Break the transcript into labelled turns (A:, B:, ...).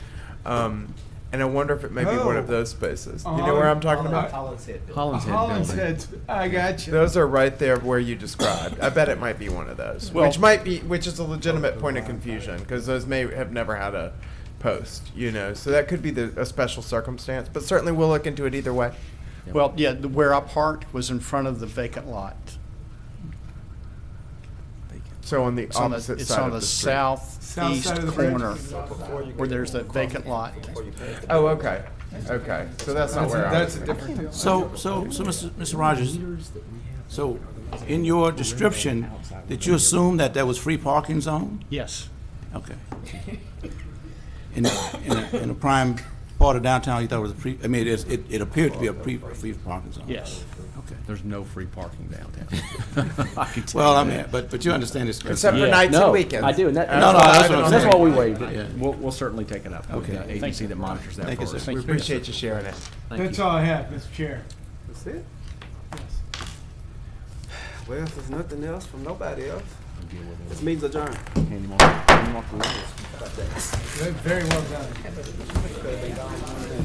A: Um, and I wonder if it may be one of
B: Oh.
A: those spaces. You know
B: Holland-
A: where I'm talking
B: Holland-
A: about?
C: Holland's Head. building.
D: Holland's Head
B: Holland's
D: building.
B: Head's- I got you.
A: Those are right there where you described. I bet it might be one of those,
D: Well-
A: which might be, which is a legitimate point of confusion because those may have never had a post, you know. So that could be the, a special circumstance, but certainly we'll look into it either way.
E: Well, yeah, the- where I parked was in front of the vacant lot.
A: So on the
E: It's on the,
A: opposite
E: it's
A: side
E: on
A: of
E: the
A: the street.
B: South
E: southeast
B: side of the bridge.
E: corner where there's that vacant lot.
A: Oh, okay, okay. So that's not
B: That's a,
A: where I
B: that's
A: was.
B: a
A: thinking.
B: different deal.
F: So, so, so, Mr. Mr. Rogers, so in your description, did you assume that there was free parking zone?
E: Yes,
F: Okay. In, a- in, a- in a prime part of downtown, you thought it was a pre, I mean, it, it it appeared to be a pre, free parking zone?
E: yes.
F: Okay.
D: There's no free parking downtown. I can tell
F: Well,
D: you
F: I
D: that.
F: mean, but, but you understand this.
A: Except for
F: concern.
G: Yeah,
A: nights
G: no,
A: and weekends.
G: I do, and that-
A: That's
F: No, no,
A: what
F: that's
A: I've
F: what
A: been
F: I'm
A: on the
F: saying.
G: That's why
A: mind.
G: we waived
F: Yeah.
G: it. We'll, we'll certainly take it up with
F: Okay.
G: the agency that monitors that
F: Thank
G: for
F: you,
G: us.
F: sir.
A: We appreciate you sharing it.
B: That's all I have, Mr. Chair.
H: That's it.
B: Yes.
H: Well, if there's nothing else from nobody else, this meeting's adjourned.
B: Very well done.